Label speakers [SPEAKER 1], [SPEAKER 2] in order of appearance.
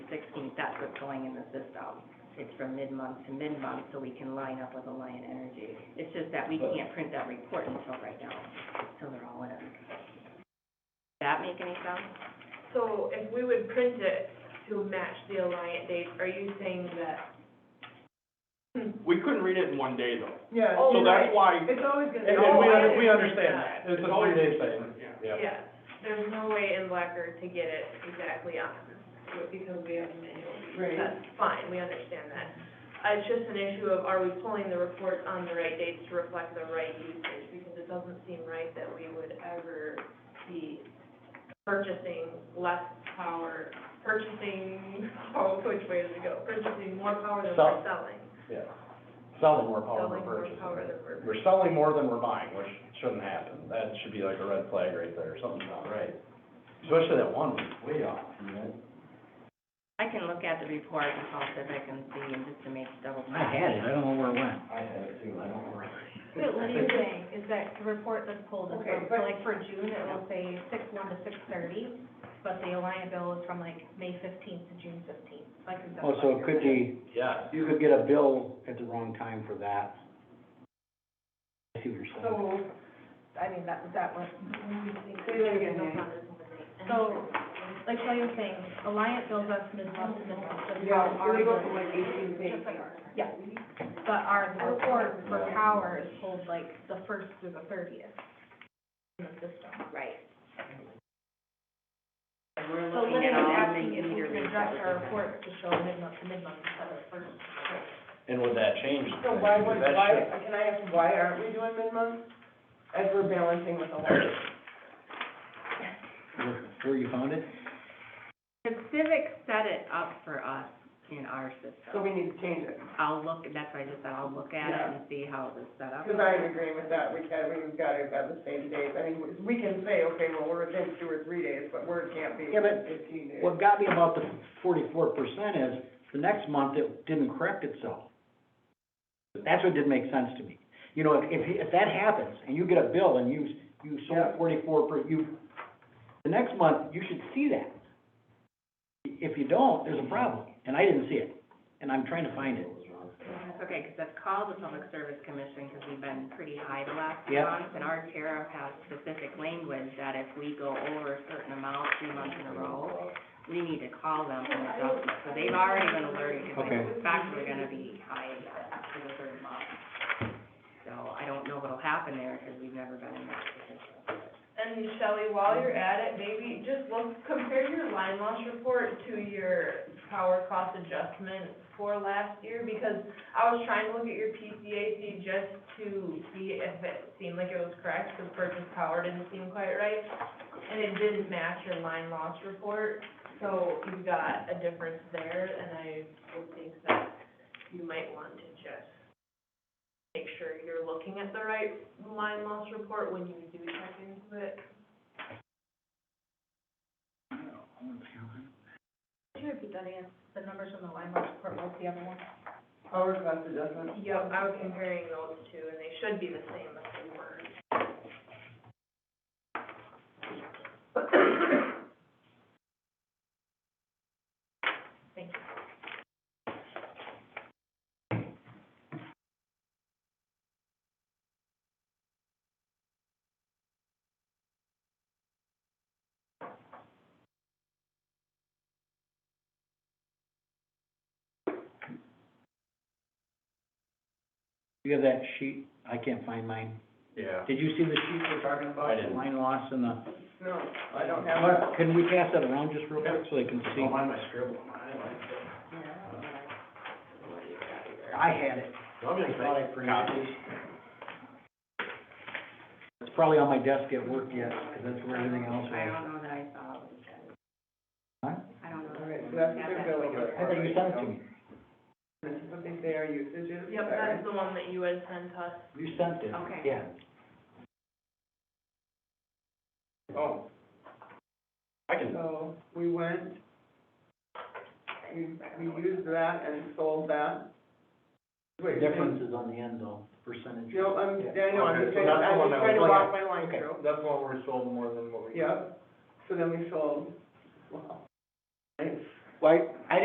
[SPEAKER 1] sixteenth, that's what's going in the system. It's from mid-month to mid-month, so we can line up with Alliant Energy. It's just that we can't print that report until right now, until they're all in. Does that make any sense?
[SPEAKER 2] So if we would print it to match the Alliant date, are you saying that? Hmm.
[SPEAKER 3] We couldn't read it in one day though,
[SPEAKER 4] Yeah,
[SPEAKER 2] Oh,
[SPEAKER 3] so
[SPEAKER 4] it's-
[SPEAKER 3] that's why.
[SPEAKER 4] it's always gonna.
[SPEAKER 3] And-
[SPEAKER 4] be-
[SPEAKER 3] and we under-
[SPEAKER 2] we understand that.
[SPEAKER 4] It's a
[SPEAKER 3] It's always-
[SPEAKER 4] three-day thing.
[SPEAKER 3] Yeah.
[SPEAKER 2] Yeah, there's no way in Blacker to get it exactly on, because we have a manual.
[SPEAKER 4] Right.
[SPEAKER 2] That's fine, we understand that. Uh, It's just an issue of are we pulling the reports on the right dates to reflect the right usage? Because it doesn't seem right that we would ever be purchasing less power, purchasing, oh, which way does it go? Purchasing more power than we're
[SPEAKER 5] Sell-
[SPEAKER 2] selling.
[SPEAKER 5] Yeah, selling more power
[SPEAKER 2] Selling
[SPEAKER 5] than
[SPEAKER 2] more
[SPEAKER 5] purchasing.
[SPEAKER 2] power than we're.
[SPEAKER 5] We're selling more than we're buying, which shouldn't happen. That should be like a red flag right there, something's not right. Especially that one, way off, you know?
[SPEAKER 1] I can look at the report and Paul says I can see and just to make double.
[SPEAKER 6] I had it, I don't know where it went.
[SPEAKER 5] I had it too, I don't remember.
[SPEAKER 7] But what you're saying is that the report that's pulled is
[SPEAKER 4] Okay,
[SPEAKER 7] from, so
[SPEAKER 4] but-
[SPEAKER 7] like for June, it will say six one to six thirty, but the Alliant bill is from like May fifteenth to June fifteenth, like. is that
[SPEAKER 6] Oh, so it could be,
[SPEAKER 5] Yeah,
[SPEAKER 6] you could get a bill at the wrong time for that. I see what you're saying.
[SPEAKER 4] So,
[SPEAKER 7] I mean, that, that was.
[SPEAKER 4] Say that again, Nancy.
[SPEAKER 7] So, like what you're saying, Alliant bills us mid-month to mid-month, just how
[SPEAKER 4] yeah,
[SPEAKER 7] our
[SPEAKER 4] we go
[SPEAKER 7] bill-
[SPEAKER 4] from like eighteen days.
[SPEAKER 7] Just like ours. Yeah, but our report for power is pulled like the first through the thirtieth in the system.
[SPEAKER 1] Right. And we're
[SPEAKER 7] So
[SPEAKER 1] looking at
[SPEAKER 7] Linda was
[SPEAKER 1] all the
[SPEAKER 7] asking if we could
[SPEAKER 1] interviews
[SPEAKER 7] adjust
[SPEAKER 1] that
[SPEAKER 7] our
[SPEAKER 1] were-
[SPEAKER 7] report to show mid-month to mid-month instead of first.
[SPEAKER 5] and would that change?
[SPEAKER 4] So why
[SPEAKER 5] things?
[SPEAKER 4] would,
[SPEAKER 5] 'Cause that
[SPEAKER 4] why,
[SPEAKER 5] should-
[SPEAKER 4] can I ask, why aren't we doing mid-month? As we're balancing with Alliant?
[SPEAKER 6] Where- Where you found it?
[SPEAKER 1] The Civic set it up for us in our
[SPEAKER 4] So
[SPEAKER 1] system.
[SPEAKER 4] we need to change it.
[SPEAKER 1] I'll look, that's why I just said I'll look at it and see how it was set up.
[SPEAKER 4] Because I'm agreeing with that, we can, we've got to have the same days, I mean, we can say, okay, well, we're within two or three days, but word can't be
[SPEAKER 6] Yeah, but
[SPEAKER 4] fifteen days.
[SPEAKER 6] What got me about the forty-four percent is, the next month, it didn't correct itself. That's what didn't make sense to me. You know, if, if, if that happens, and you get a bill and you, you sold
[SPEAKER 4] Yeah.
[SPEAKER 6] forty-four per, you, the next month, you should see that. If you don't, there's a problem, and I didn't see it, and I'm trying to find it.
[SPEAKER 1] That's okay, because I've called the Public Service Commission, because we've been pretty high the last few
[SPEAKER 6] Yeah.
[SPEAKER 1] months. And our tariff has specific language that if we go over a certain amount three months in a row, we need to call them for an adjustment. So they've already been alerted, because I
[SPEAKER 6] Okay.
[SPEAKER 1] suspect we're gonna be high again for the third month. So I don't know what'll happen there, because we've never been in that position.
[SPEAKER 2] And Shelley, while you're at it, maybe just look, compare your line loss report to your power cost adjustment for last year, because I was trying to look at your PCAC just to see if it seemed like it was correct, because purchase power didn't seem quite right, and it didn't match your line loss report, so you've got a difference there, and I would think that you might want to just make sure you're looking at the right line loss report when you do check into it.
[SPEAKER 7] Could you repeat that again? The numbers on the line last report, what's the other one?
[SPEAKER 4] Power cost adjustment,
[SPEAKER 2] Yep, I was comparing those two, and they should be the same as they were.
[SPEAKER 6] You have that sheet, I can't find mine.
[SPEAKER 5] Yeah.
[SPEAKER 6] Did you see the sheet we're talking about?
[SPEAKER 5] I didn't.
[SPEAKER 6] Line loss and the,
[SPEAKER 4] no, I don't have that.
[SPEAKER 6] can we pass that around just real quick, so they can see?
[SPEAKER 5] Don't mind my scribble, I like it.
[SPEAKER 6] I had it.
[SPEAKER 5] I'm gonna make copies.
[SPEAKER 6] It's probably on my desk at work yet, 'cause that's where everything else
[SPEAKER 1] I
[SPEAKER 6] was.
[SPEAKER 1] don't know that I saw it.
[SPEAKER 6] Huh?
[SPEAKER 1] I don't know.
[SPEAKER 4] All right, so that's their billing report.
[SPEAKER 6] I think you sent it to me.
[SPEAKER 4] This is what they say our usage is. is
[SPEAKER 2] Yep,
[SPEAKER 4] that
[SPEAKER 2] that's
[SPEAKER 4] right?
[SPEAKER 2] the one that you had sent us.
[SPEAKER 6] You sent it.
[SPEAKER 1] Okay.
[SPEAKER 6] Yeah.
[SPEAKER 3] Oh. I can,
[SPEAKER 4] So, we went, we, we used that and sold that. Wait,
[SPEAKER 6] Difference is on the end though, percentage.
[SPEAKER 4] No, I'm, I know, I'm
[SPEAKER 3] Okay,
[SPEAKER 4] just
[SPEAKER 3] so
[SPEAKER 4] trying,
[SPEAKER 3] that's the
[SPEAKER 4] I'm
[SPEAKER 3] one
[SPEAKER 4] just
[SPEAKER 3] that
[SPEAKER 4] trying to
[SPEAKER 3] was-
[SPEAKER 4] walk my line
[SPEAKER 3] okay,
[SPEAKER 4] through.
[SPEAKER 3] that's the one we're sold more than what we.
[SPEAKER 4] Yep, so then we sold, wow. Nice.
[SPEAKER 6] Why, I